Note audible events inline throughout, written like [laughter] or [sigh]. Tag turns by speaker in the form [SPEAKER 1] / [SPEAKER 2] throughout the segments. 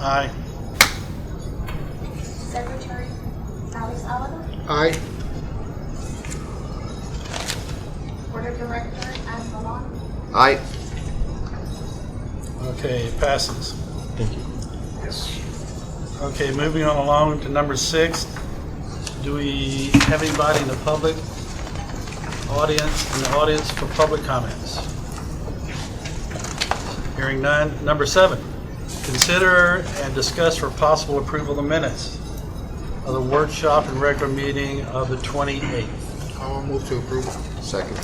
[SPEAKER 1] Aye.
[SPEAKER 2] Secretary Alice Oliver,
[SPEAKER 1] Aye.
[SPEAKER 2] Board of Directors Anne Malone,
[SPEAKER 3] Aye.
[SPEAKER 1] Okay, it passes.
[SPEAKER 3] Thank you.
[SPEAKER 1] Okay, moving on along to number six. Do we have anybody in the public audience, in the audience for public comments? Hearing none. Number seven, consider and discuss for possible approval the minutes of the workshop and regular meeting of the 28th.
[SPEAKER 3] I'll move to approve. Second.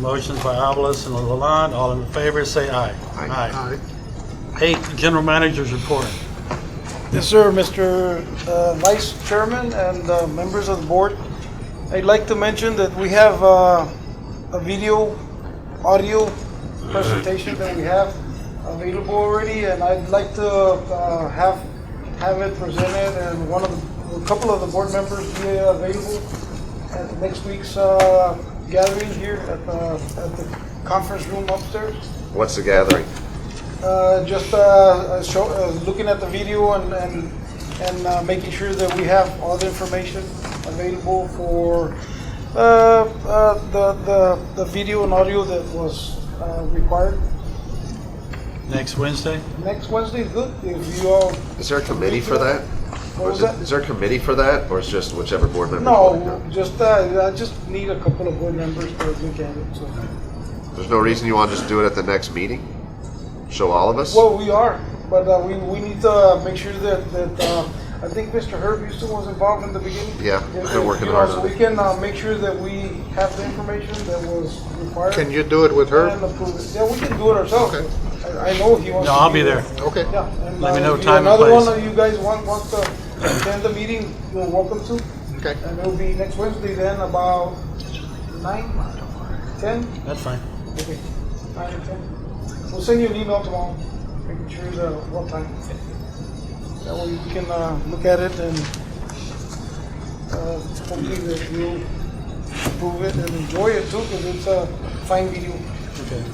[SPEAKER 1] Motions by Obelus and Lalonde, all in favor, say aye.
[SPEAKER 3] Aye.
[SPEAKER 1] Eight, general managers report.
[SPEAKER 4] Yes, sir, Mr. uh, Vice Chairman and uh, members of the board. I'd like to mention that we have uh, a video, audio presentation that we have available already, and I'd like to uh, have, have it presented, and one of, the- a couple of the board members be available at next week's uh, gathering here at the, at the conference room upstairs.
[SPEAKER 3] What's the gathering?
[SPEAKER 4] Uh, just uh, uh, show, uh, looking at the video and and, and uh, making sure that we have all the information available for uh, uh, the, the the video and audio that was uh, required.
[SPEAKER 1] Next Wednesday?
[SPEAKER 4] Next Wednesday is good if you all.
[SPEAKER 3] Is there a committee for that? Or
[SPEAKER 4] What was
[SPEAKER 3] is it-
[SPEAKER 4] that?
[SPEAKER 3] Is there a committee for that, or it's just whichever board member?
[SPEAKER 4] No, just uh, I just need a couple of board members to look at it. So.
[SPEAKER 3] There's no reason you want to just do it at the next meeting? Show all of us?
[SPEAKER 4] Well, we are, but uh, we, we need to make sure that, that, uh, I think Mr. Herb Houston was involved in the beginning.
[SPEAKER 3] Yeah, they're
[SPEAKER 4] If- if,
[SPEAKER 3] working
[SPEAKER 4] you know,
[SPEAKER 3] hard
[SPEAKER 4] So
[SPEAKER 3] on
[SPEAKER 4] we
[SPEAKER 3] it.
[SPEAKER 4] can, uh, make sure that we have the information that was required. Can you do it with her? Yeah, we can do it ourselves. I, I know he wants
[SPEAKER 1] No,
[SPEAKER 4] to.
[SPEAKER 1] I'll
[SPEAKER 4] do
[SPEAKER 1] be
[SPEAKER 4] it.
[SPEAKER 1] there.
[SPEAKER 5] Okay.
[SPEAKER 4] Yeah. and,
[SPEAKER 1] Let me
[SPEAKER 4] uh,
[SPEAKER 1] know
[SPEAKER 4] if
[SPEAKER 1] time and
[SPEAKER 4] Another
[SPEAKER 1] place.
[SPEAKER 4] one of you guys want, wants to attend the meeting, you're welcome to.
[SPEAKER 5] Okay.
[SPEAKER 4] And it'll be next Wednesday then about nine, ten?
[SPEAKER 1] That's fine.
[SPEAKER 4] Okay. Nine or ten. We'll send you an email tomorrow, making sure the uh, what time. That way you can uh, look at it and uh, hopefully that you approve it and enjoy it too, because it's a fine video.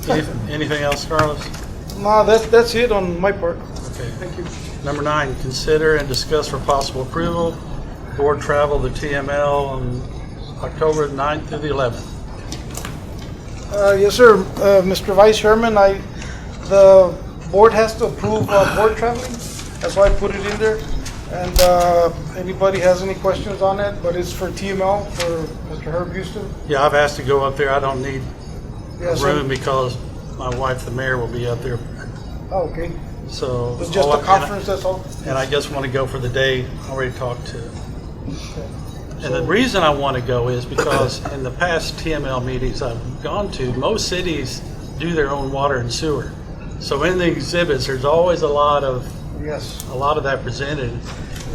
[SPEAKER 1] Okay. Any- Anything else, Carlos?
[SPEAKER 4] Nah, that's that's it on my part.
[SPEAKER 1] Okay.
[SPEAKER 4] Thank you.
[SPEAKER 1] Number nine, consider and discuss for possible approval, board travel to TML on October 9th through the 11th.
[SPEAKER 4] Uh, Yes, sir. Uh, Mr. Vice Chairman, I, the board has to approve uh, board traveling. That's why I put it in there. And uh, anybody has any questions on it, but it's for TML, for Mr. Herb Houston.
[SPEAKER 1] Yeah, I've asked to go up there. I don't need a
[SPEAKER 4] Yes, sir.
[SPEAKER 1] room because my wife, the mayor, will be up there,
[SPEAKER 4] Oh, okay.
[SPEAKER 1] so.
[SPEAKER 4] It's just
[SPEAKER 1] all I-
[SPEAKER 4] a
[SPEAKER 1] and I-
[SPEAKER 4] conference, that's all.
[SPEAKER 1] And I just want to go for the day. I already talked to
[SPEAKER 4] Okay.
[SPEAKER 1] And the reason I want to go is because in the past TML meetings I've gone to, most cities do their own water and sewer. So in the exhibits, there's always a lot of,
[SPEAKER 4] Yes.
[SPEAKER 1] a lot of that presented.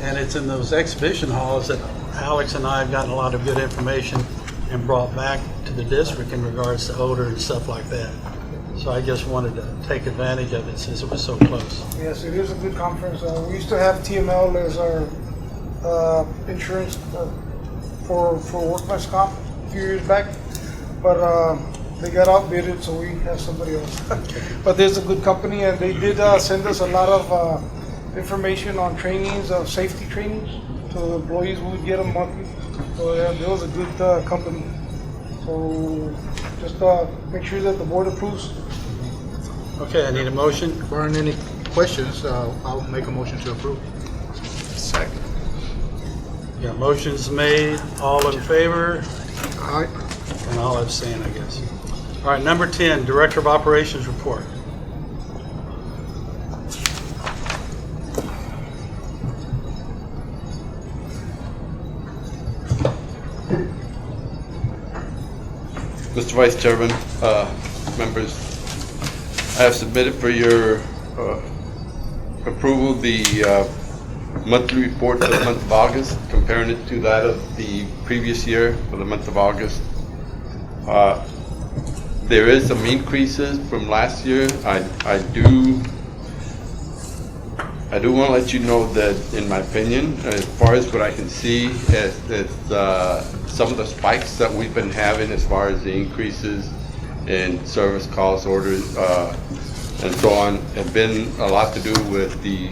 [SPEAKER 1] And it's in those exhibition halls that Alex and I have gotten a lot of good information and brought back to the district in regards to odor and stuff like that. So I just wanted to take advantage of it since it was so close.
[SPEAKER 4] Yes, it is a good conference. Uh, we used to have TML as our uh, insurance uh, for for workman's comp a few years back, but uh, they got outbidded, so we have somebody else. [laughs] but there's a good company, and they did uh, send us a lot of uh, information on trainings, uh, safety trainings, so the employees would get them monthly. So yeah, there was a good uh, company. So just uh, make sure that the board approves.
[SPEAKER 1] Okay, I need a motion.
[SPEAKER 5] If there aren't any questions, uh, I'll make a motion to approve.
[SPEAKER 3] Second.
[SPEAKER 1] Yeah, motion's made. All in favor?
[SPEAKER 5] Aye.
[SPEAKER 1] And all I've seen, I guess. All right, number 10, Director of Operations report.
[SPEAKER 6] Mr. Vice Chairman, uh, members, I have submitted for your uh, approval the uh, monthly report for the month of August, comparing it to that of the previous year for the month of August. Uh, There is some increases from last year. I I do I do want to let you know that, in my opinion, as far as what I can see, is, is uh, some of the spikes that we've been having as far as the increases in service calls, orders, uh, and so on, have been a lot to do with the